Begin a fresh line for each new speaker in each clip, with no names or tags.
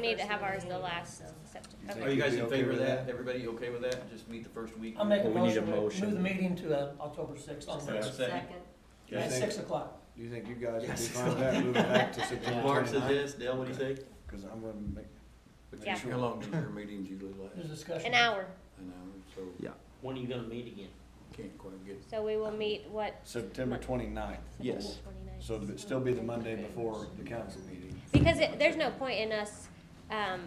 need to have ours the last September.
Are
Okay.
you guys in
Okay
favor of
with
that?
that?
Everybody okay with that? Just meet the first week?
I'll make a
Well, we need a
motion, to move the
motion.
meeting to uh, October sixth on
Is there a
Wednesday,
second?
Do you
at
think,
six o'clock.
do you think you guys would be
Yes.
fine with that, moving back to September
Mark says
twenty-ninth?
yes, Dale, what do you think?
Cause I'm gonna make,
Yeah.
How long does your meeting usually
There's
last?
discussion.
An hour,
An hour, so
When are you gonna meet again?
can't quite get.
so we will meet what?
September twenty-ninth.
Yes.
So it'd still be the Monday before the council meeting.
Because it, there's no point in us, um,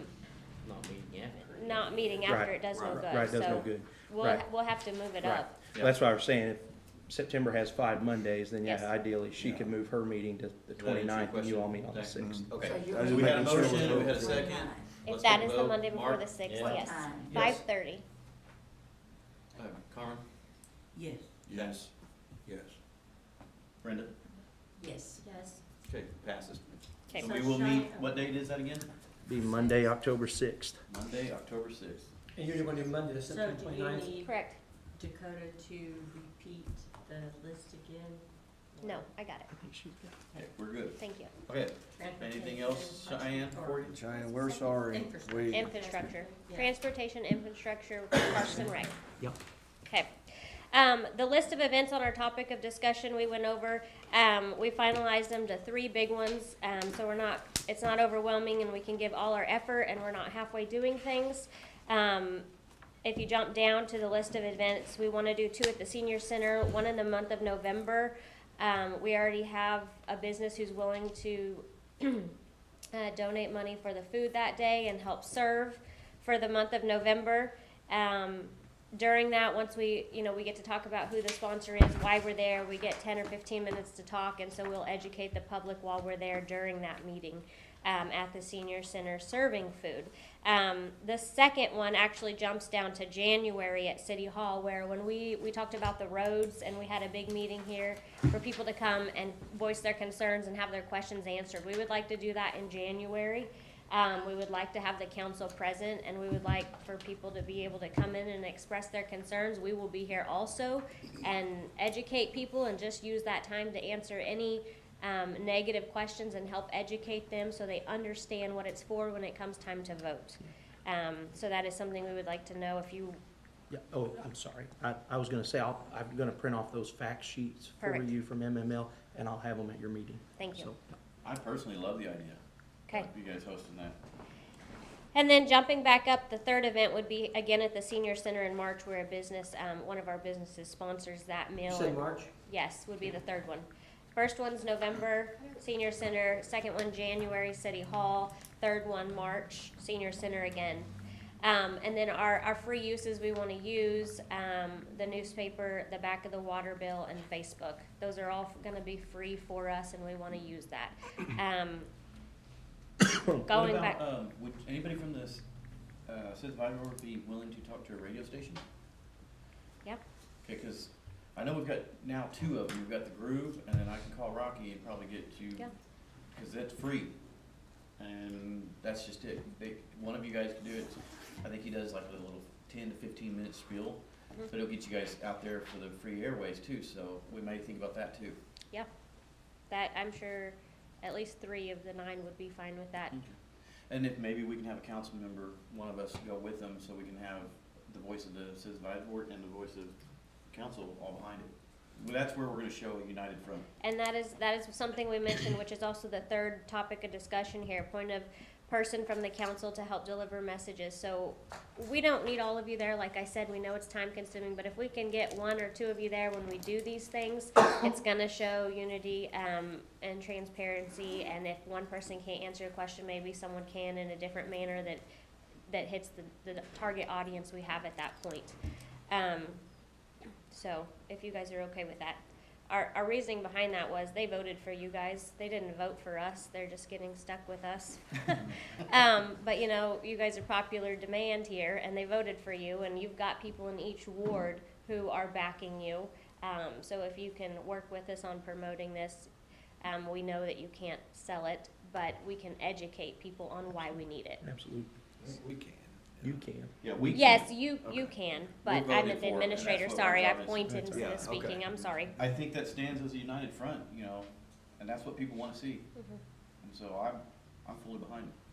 Not meeting yet.
not meeting after
Right.
it does no
Right,
good,
Right, does no
Uh, so
good.
we'll,
Right.
we'll have to move it
Right.
up.
Yeah.
That's why I was saying, if September has five Mondays, then
Yes.
yeah, ideally, she could move her meeting to the
Does that answer your
twenty-ninth, and you all
question?
meet on the
Thanks.
sixth.
Okay.
So you're-
I was
We had a
making sure it was
motion, we had a
over.
second.
If
Let's
that
take a
is the
vote.
Monday before
Mark?
the sixth,
Yeah.
yes,
Time.
five
Yes.
thirty.
Uh, Carmen?
Yes.
Yes. Yes. Brenda?
Yes.
Yes.
Okay, passes.
Okay,
So we will meet, what date is that again?
Be Monday, October sixth.
Monday, October sixth.
And usually when you Monday,
So
September
do you
twenty-ninth.
need
correct,
Dakota to repeat the list again?
no, I got it,
Okay, we're good.
thank you.
Okay,
Transportation,
anything else, Cheyenne, for you?
Cheyenne, we're sorry, we,
Infrastructure,
Yeah.
transportation, infrastructure, parks and rec.
Yep.
Okay. Um, the list of events on our topic of discussion we went over, um, we finalized them to three big ones. Um, so we're not, it's not overwhelming and we can give all our effort and we're not halfway doing things. Um, if you jump down to the list of events, we wanna do two at the senior center, one in the month of November. Um, we already have a business who's willing to uh, donate money for the food that day and help serve for the month of November. Um, during that, once we, you know, we get to talk about who the sponsor is, why we're there, we get ten or fifteen minutes to talk, and so we'll educate the public while we're there during that meeting um, at the senior center serving food. Um, the second one actually jumps down to January at City Hall, where when we, we talked about the roads and we had a big meeting here for people to come and voice their concerns and have their questions answered. We would like to do that in January. Um, we would like to have the council present and we would like for people to be able to come in and express their concerns. We will be here also and educate people and just use that time to answer any um, negative questions and help educate them so they understand what it's for when it comes time to vote. Um, so that is something we would like to know if you,
Yeah, oh, I'm sorry. I, I was gonna say, I'll, I'm gonna print off those fact sheets for
Perfect.
you from MML, and I'll have them at your meeting.
thank you,
So,
I personally love the idea.
okay.
You guys hosting that.
And then jumping back up, the third event would be again at the senior center in March where a business, um, one of our businesses sponsors that
You
meal.
said
and-
March?
Yes, would be the third one. First one's November, senior center, second one, January, city hall, third one, March, senior center again. Um, and then our, our free uses we wanna use, um, the newspaper, the back of the water bill, and Facebook. Those are all gonna be free for us and we wanna use that. Um,
What
going back.
about, um, would anybody from this, uh, Survivor Board be willing to talk to a radio station?
Yep.
Okay, cause I know we've got now two of them. We've got the Groove and then I can call Rocky and probably get you.
Yeah.
Cause that's free. And that's just it. They, one of you guys can do it. I think he does like a little ten to fifteen minute spiel.
Mhm.
But it'll get you guys out there for the free airways too, so we may think about that too.
That, I'm sure at least three of the nine would be fine with that.
And if maybe we can have a council member, one of us go with them, so we can have the voice of the citizen advisory board and the voice of council all behind it. Well, that's where we're gonna show united front.
And that is, that is something we mentioned, which is also the third topic of discussion here, point of person from the council to help deliver messages. So we don't need all of you there, like I said, we know it's time consuming, but if we can get one or two of you there when we do these things, it's gonna show unity, um, and transparency, and if one person can't answer a question, maybe someone can in a different manner that, that hits the, the target audience we have at that point. Um, so, if you guys are okay with that. Our, our reasoning behind that was they voted for you guys. They didn't vote for us. They're just getting stuck with us. um, but you know, you guys are popular demand here, and they voted for you, and you've got people in each ward who are backing you. Um, so if you can work with us on promoting this, um, we know that you can't sell it, but we can educate people on why we need it.
Absolutely,
we can.
you can.
Yeah, we
Yes, you you
Okay.
can, but
We're
I'm
voting
the
for it, and
administrator.
that's what
Sorry,
our
I
job is.
pointed
Yeah,
to
okay.
speaking. I'm sorry.
I think that stands as a united front, you know, and that's what people wanna see,
Mhm.
and so I'm, I'm fully behind it.